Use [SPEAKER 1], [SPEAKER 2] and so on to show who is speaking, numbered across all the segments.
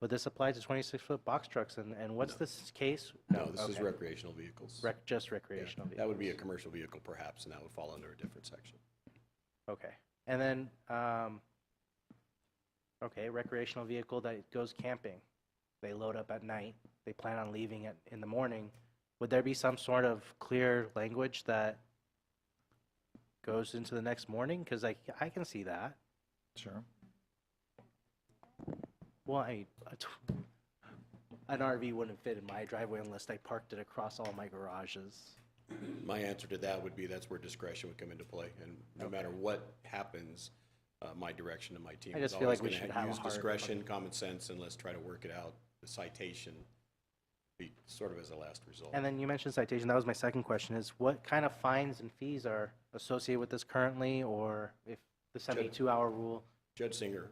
[SPEAKER 1] Would this apply to 26-foot box trucks? And, and what's this case?
[SPEAKER 2] No, this is
[SPEAKER 1] okay.
[SPEAKER 2] recreational vehicles.
[SPEAKER 1] Rec, just
[SPEAKER 2] Yeah,
[SPEAKER 1] recreational vehicles?
[SPEAKER 2] That would be a commercial vehicle perhaps, and that would fall under a different section.
[SPEAKER 1] Okay. And then, um, okay, recreational vehicle that goes camping. They load up at night. They plan on leaving at, in the morning. Would there be some sort of clear language that goes into the next morning? Because I, I can see that.
[SPEAKER 3] Sure.
[SPEAKER 1] Well, I, a t- an RV wouldn't fit in my driveway unless I parked it across all my garages.
[SPEAKER 2] My answer to that would be that's where discretion would come into play, and no matter what happens, uh, my direction and my team
[SPEAKER 1] I
[SPEAKER 2] is
[SPEAKER 1] just feel like
[SPEAKER 2] always
[SPEAKER 1] we
[SPEAKER 2] going
[SPEAKER 1] should
[SPEAKER 2] to
[SPEAKER 1] have a
[SPEAKER 2] use
[SPEAKER 1] hard-
[SPEAKER 2] discretion, common sense, and let's try to work it out. The citation, be sort of as a last result.
[SPEAKER 1] And then you mentioned citation. That was my second question is what kind of fines and fees are associated with this currently or if the 72 hour rule?
[SPEAKER 2] Judge Singer,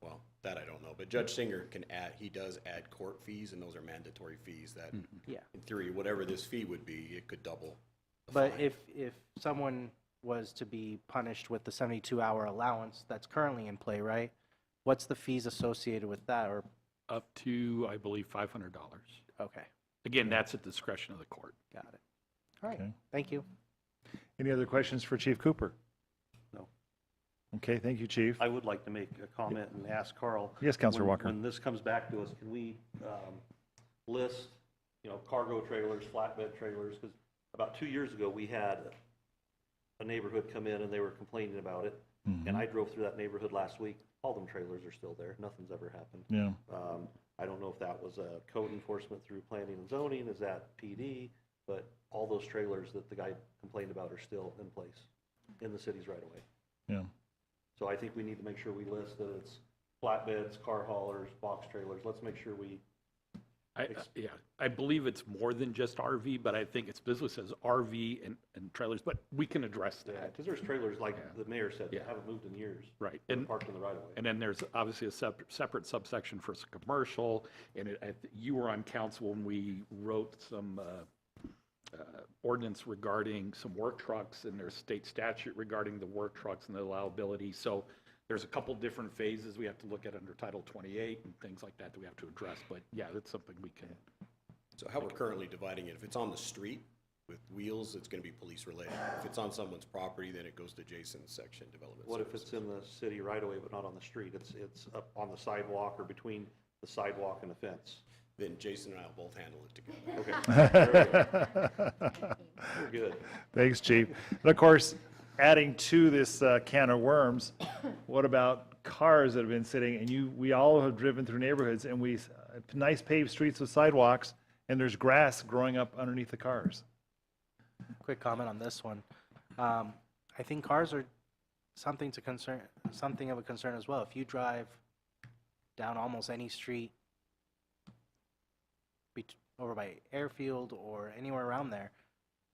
[SPEAKER 2] well, that I don't know, but Judge Singer can add, he does add court fees, and those are mandatory fees that, in
[SPEAKER 1] Yeah.
[SPEAKER 2] theory, whatever this fee would be, it could double. the
[SPEAKER 1] But
[SPEAKER 2] fine.
[SPEAKER 1] if, if someone was to be punished with the 72 hour allowance that's currently in play, right? What's the fees associated with that or,
[SPEAKER 4] up to, I believe, $500.
[SPEAKER 1] okay,
[SPEAKER 4] Again, that's at the discretion of the court.
[SPEAKER 1] got it. All right,
[SPEAKER 3] Okay.
[SPEAKER 1] thank you.
[SPEAKER 3] Any other questions for Chief Cooper?
[SPEAKER 5] No.
[SPEAKER 3] Okay, thank you, Chief.
[SPEAKER 5] I would like to make a comment and ask Carl.
[SPEAKER 3] Yes, Counselor
[SPEAKER 5] when-
[SPEAKER 3] Walker.
[SPEAKER 5] When this comes back to us, can we um, list, you know, cargo trailers, flatbed trailers? Because about two years ago, we had a neighborhood come in and they were complaining about it. And I drove through that neighborhood last week. All them trailers are still there. Nothing's ever happened.
[SPEAKER 3] Yeah,
[SPEAKER 5] Um, I don't know if that was a code enforcement through planning and zoning, is that PD? But all those trailers that the guy complained about are still in place in the cities right away.
[SPEAKER 3] yeah.
[SPEAKER 5] So I think we need to make sure we list that it's flatbeds, car haulers, box trailers. Let's make sure we,
[SPEAKER 4] I, I- yeah, I believe it's more than just RV, but I think it's business as RV and, and trailers, but we can address that,
[SPEAKER 5] because uh, there's trailers, like the mayor said, that
[SPEAKER 4] Yeah.
[SPEAKER 5] haven't moved in years.
[SPEAKER 4] right?
[SPEAKER 5] They're
[SPEAKER 4] And,
[SPEAKER 5] parked in the right of way.
[SPEAKER 4] and then there's obviously a sep- separate subsection for s- commercial, and it, I th- you were on council when we wrote some uh, uh, ordinance regarding some work trucks, and there's state statute regarding the work trucks and the allowability, so there's a couple different phases we have to look at under Title 28 and things like that that we have to address, but yeah, that's something we can.
[SPEAKER 2] So how we're currently dividing it, if it's on the street with wheels, it's gonna be police related. If it's on someone's property, then it goes to Jason's section development.
[SPEAKER 5] What if
[SPEAKER 2] services.
[SPEAKER 5] it's in the city right away, but not on the street? It's, it's up on the sidewalk or between the sidewalk and the fence.
[SPEAKER 2] Then Jason and I will both handle it together.
[SPEAKER 5] Okay, very good. We're good.
[SPEAKER 3] Thanks, Chief. And of course, adding to this uh, can of worms, what about cars that have been sitting, and you, we all have driven through neighborhoods, and we, s- uh, nice paved streets with sidewalks, and there's grass growing up underneath the cars.
[SPEAKER 1] quick comment on this one. Um, I think cars are something to concern, something of a concern as well. If you drive down almost any street bet- over by airfield or anywhere around there,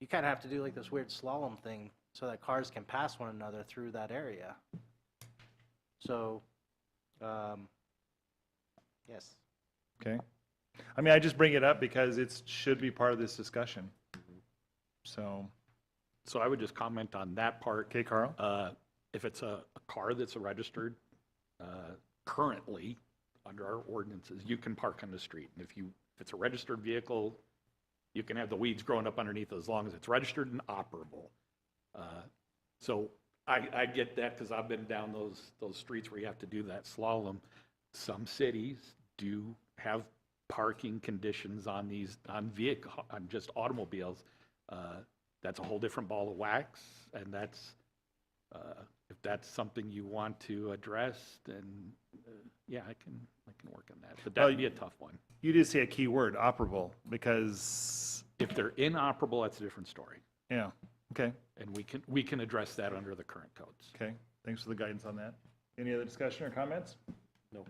[SPEAKER 1] you kind of have to do like this weird slalom thing so that cars can pass one another through that area. So, um, yes.
[SPEAKER 3] Okay. I mean, I just bring it up because it should be part of this discussion. So,
[SPEAKER 4] So I would just comment on that part.
[SPEAKER 3] okay, Carl?
[SPEAKER 4] Uh, If it's a a car that's registered uh, currently under our ordinances, you can park on the street. And if you, if it's a registered vehicle, you can have the weeds growing up underneath as long as it's registered and operable. Uh, So I, I get that because I've been down those, those streets where you have to do that slalom. Some cities do have parking conditions on these, on vehicle, on just automobiles. Uh, That's a whole different ball of wax, and that's, uh, if that's something you want to address, then, uh, yeah, I can, I can work on that. But that'd be a tough one.
[SPEAKER 3] You did say a key word, operable, because,
[SPEAKER 4] If they're inoperable, that's a different story.
[SPEAKER 3] yeah, okay,
[SPEAKER 4] And we can, we can address that under the current codes.
[SPEAKER 3] okay. Thanks for the guidance on that. Any other discussion or comments?
[SPEAKER 5] No,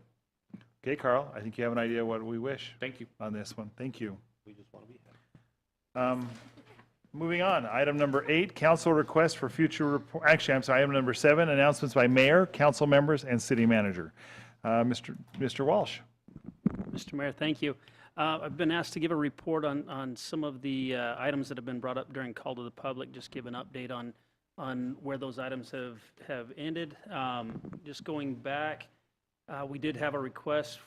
[SPEAKER 3] Okay, Carl, I think you have an idea what we wish
[SPEAKER 4] Thank you.
[SPEAKER 3] on this one. Thank you.
[SPEAKER 5] we just want to be happy.
[SPEAKER 3] Um, Moving on, item number eight, council request for future report, actually, I'm sorry, item number seven, announcements by mayor, council members, and city manager. Uh, Mr. Mr. Walsh?
[SPEAKER 6] Mr. Mayor, thank you. Uh, I've been asked to give a report on, on some of the uh, items that have been brought up during call to the public, just give an update on, on where those items have, have ended. Um, Just going back, uh, we did have a request